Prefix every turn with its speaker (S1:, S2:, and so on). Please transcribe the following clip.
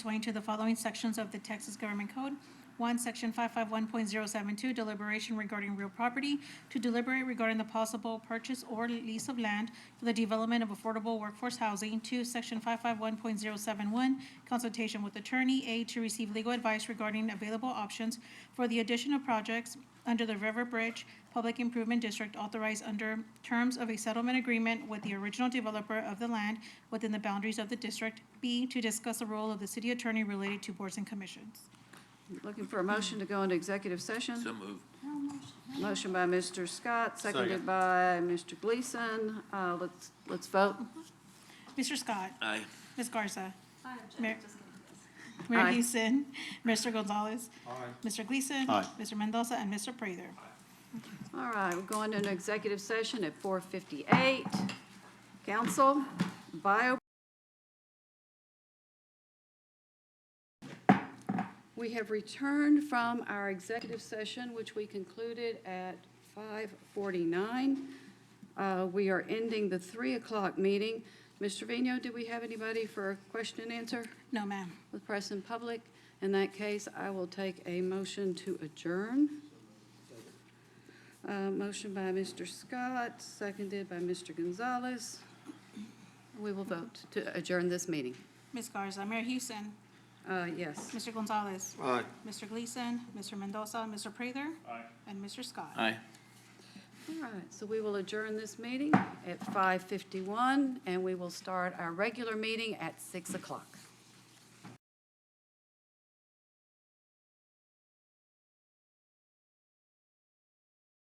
S1: pursuant to the following sections of the Texas Government Code. One, Section 551.072, deliberation regarding real property, to deliberate regarding the possible purchase or lease of land for the development of affordable workforce housing. Two, Section 551.071, consultation with attorney. A, to receive legal advice regarding available options for the addition of projects under the River Bridge Public Improvement District authorized under terms of a settlement agreement with the original developer of the land within the boundaries of the district. B, to discuss the role of the city attorney related to boards and commissions.
S2: Looking for a motion to go into executive session?
S3: So moved.
S2: Motion by Mr. Scott, seconded
S4: Second.
S2: by Mr. Gleason. Uh, Let's, let's vote.
S1: Mr. Scott,
S3: Aye.
S1: Ms. Garza,
S5: I
S1: Mayor-
S5: object, just kidding, yes.
S1: Mayor
S2: Aye.
S1: Houston, Mr. Gonzalez, Mr. Gleason,
S4: Aye.
S1: Mr. Mendoza, and Mr. Prather.
S2: All right, we're going into executive session at 4:58. Council, bio. We have returned from our executive session, which we concluded at 5:49. Uh, We are ending the 3 o'clock meeting. Mr. Vino, do we have anybody for question and answer
S1: No, ma'am.
S2: with press and public? In that case, I will take a motion to adjourn. Uh, Motion by Mr. Scott, seconded by Mr. Gonzalez. We will vote to adjourn this meeting.
S1: Ms. Garza, Mayor Houston,
S2: Uh, Yes.
S1: Mr. Gonzalez,
S4: Aye.
S1: Mr. Gleason, Mr. Mendoza, Mr. Prather. And Mr. Scott.
S3: Aye.
S2: All right, so we will adjourn this meeting at 5:51, and we will start our regular meeting at 6 o'clock.